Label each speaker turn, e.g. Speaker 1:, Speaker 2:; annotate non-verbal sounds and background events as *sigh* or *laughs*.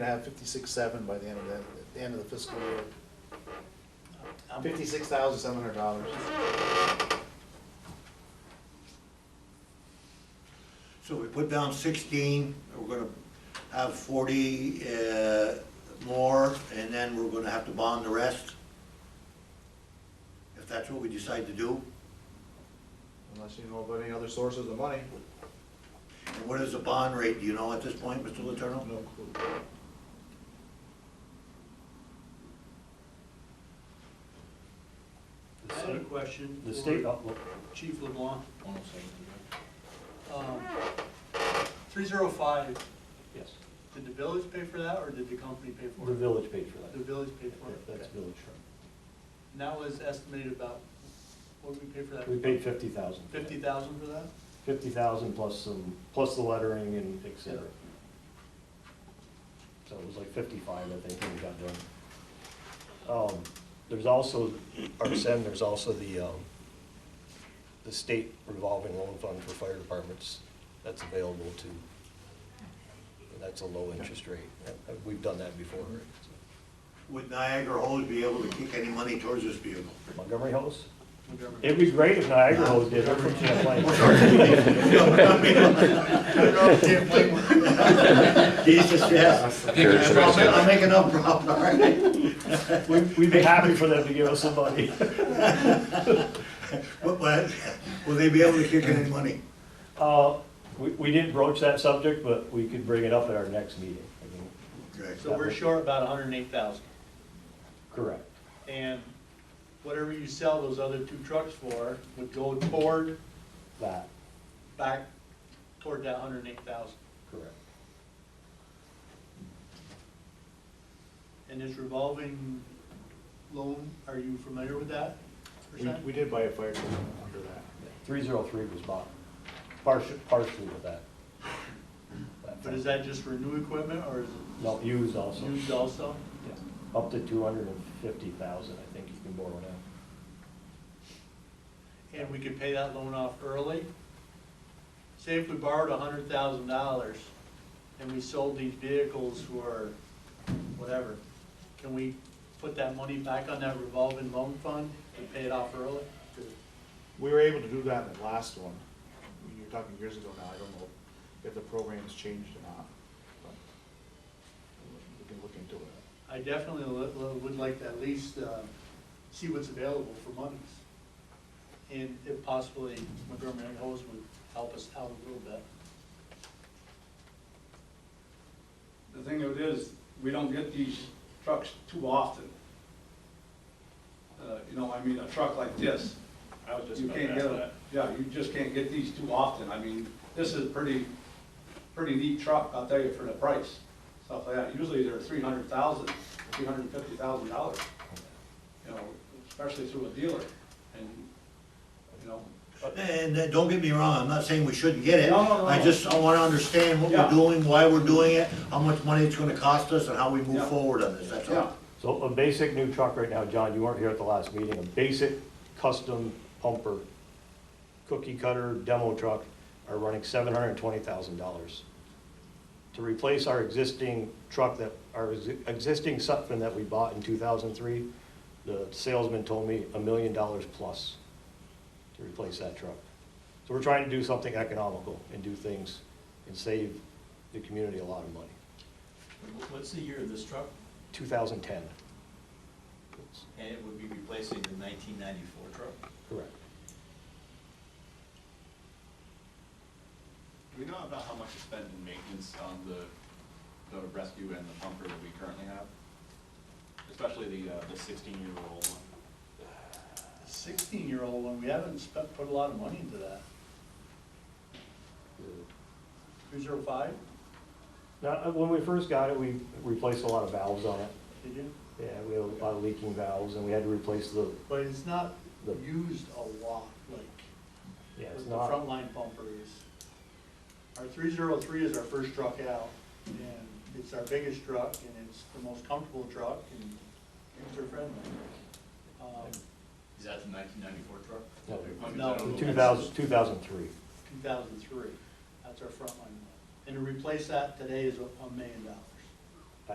Speaker 1: to have fifty-six, seven by the end of the, the end of the fiscal year. Fifty-six thousand, seven hundred dollars.
Speaker 2: So we put down sixteen, we're gonna have forty, uh, more, and then we're gonna have to bond the rest? If that's what we decide to do?
Speaker 1: Unless you know about any other sources of money,
Speaker 2: And what is the bond rate, do you know at this point, Mr. Letourneau?
Speaker 1: no clue.
Speaker 3: I had a question.
Speaker 4: The
Speaker 3: for
Speaker 4: state, oh, look,
Speaker 3: Chief LeBlanc. Um, 305,
Speaker 4: yes,
Speaker 3: did the village pay for that, or did the company pay for
Speaker 4: the
Speaker 3: it?
Speaker 4: village paid for
Speaker 3: The
Speaker 4: that.
Speaker 3: village paid for
Speaker 4: That-
Speaker 3: it?
Speaker 4: That's
Speaker 3: okay.
Speaker 4: village road.
Speaker 3: And that was estimated about, what did we pay for that?
Speaker 4: We paid fifty thousand.
Speaker 3: 50,000 for that?
Speaker 4: Fifty thousand plus some, plus the lettering and et cetera. So it was like fifty-five, I think, when we got done. Um, There's also, our SEN, there's also the, um, the state revolving loan fund for fire departments that's available to, that's a low interest rate. Uh, We've done that before. right? So
Speaker 2: Would Niagara Hose be able to kick any money towards this vehicle?
Speaker 4: Montgomery Hills?
Speaker 3: Montgomery.
Speaker 4: It'd be great if Niagara Hose did, they're from Champlain.
Speaker 2: Oh,
Speaker 4: *laughs*
Speaker 2: *laughs* Jesus, yes.
Speaker 5: I think
Speaker 2: I'm
Speaker 5: it's-
Speaker 2: I'm making up, Rob, all right?
Speaker 4: We'd we'd be happy for them to give us some money.
Speaker 2: But, but, will they be able to kick any money?
Speaker 4: Uh, We we didn't broach that subject, but we could bring it up at our next meeting. I mean,
Speaker 2: Okay.
Speaker 3: So we're short about 108,000.
Speaker 4: Correct.
Speaker 3: And whatever you sell those other two trucks for would go toward,
Speaker 4: That,
Speaker 3: back toward that 108,000.
Speaker 4: correct.
Speaker 3: And this revolving loan, are you familiar with that?
Speaker 1: We,
Speaker 3: percent?
Speaker 1: we did buy a fire truck under that.
Speaker 4: 303 was bought, partially partially with that.
Speaker 3: But is that just for new equipment or is it
Speaker 4: No, used also.
Speaker 3: used also?
Speaker 4: Yeah. Up to 250,000, I think you can borrow now.
Speaker 3: And we could pay that loan off early? Say if we borrowed a hundred thousand dollars and we sold these vehicles for whatever, can we put that money back on that revolving loan fund and pay it off early?
Speaker 1: We were able to do that in the last one. You're talking years ago now, I don't know if the program's changed or not. but We can look into it.
Speaker 3: I definitely li- li- would like to at least uh, see what's available for monies. And if possibly Montgomery and Hose would help us out a little bit.
Speaker 6: The thing of it is, we don't get these trucks too often. Uh, You know, I mean, a truck like this,
Speaker 7: I was just
Speaker 6: you
Speaker 7: about
Speaker 6: can't
Speaker 7: to
Speaker 6: get,
Speaker 7: ask
Speaker 6: a-
Speaker 7: that.
Speaker 6: yeah, you just can't get these too often. I mean, this is a pretty, pretty neat truck, I'll tell you, for the price, stuff like that. Usually they're three hundred thousand, three hundred and fifty thousand dollars, you know, especially through a dealer, and, you know. but-
Speaker 2: And uh, don't get me wrong, I'm not saying we shouldn't get it.
Speaker 6: No, no, no,
Speaker 2: I
Speaker 6: no.
Speaker 2: just, I wanna understand what we're
Speaker 6: Yeah.
Speaker 2: doing, why we're doing it, how much money it's gonna cost us, and how we move
Speaker 6: Yeah.
Speaker 2: forward on this, that's all.
Speaker 4: So a basic new truck right now, John, you weren't here at the last meeting, a basic custom pumper, cookie cutter demo truck are running seven hundred and twenty thousand dollars. To replace our existing truck that, our ex- existing Sutphen that we bought in two thousand and three, the salesman told me a million dollars plus to replace that truck. So we're trying to do something economical and do things and save the community a lot of money.
Speaker 8: What's the year of this truck?
Speaker 4: Two thousand and ten.
Speaker 8: And it would be replacing the nineteen ninety-four truck.
Speaker 4: Correct.
Speaker 7: Do we know about how much is spent in maintenance on the, the rescue and the pumper that we currently have? Especially the, uh, the sixteen-year-old one.
Speaker 3: The Sixteen-year-old one, we haven't spent, put a lot of money into that. Three zero five,
Speaker 4: Now, uh, when we first got it, we replaced a lot of valves on it.
Speaker 3: did you?
Speaker 4: Yeah, we had a lot of leaking valves and we had to replace the,
Speaker 3: But it's not
Speaker 4: The-
Speaker 3: used a lot, like,
Speaker 4: yeah, it's
Speaker 3: with the
Speaker 4: not,
Speaker 3: frontline pumper is. Our three zero three is our first truck out, and it's our biggest truck, and it's the most comfortable truck, and user-friendly. Um,
Speaker 8: Is that the nineteen ninety-four truck?
Speaker 4: no,
Speaker 3: No.
Speaker 4: the 2000, 2003.
Speaker 3: 2003. That's our frontline one. And to replace that today is a million dollars.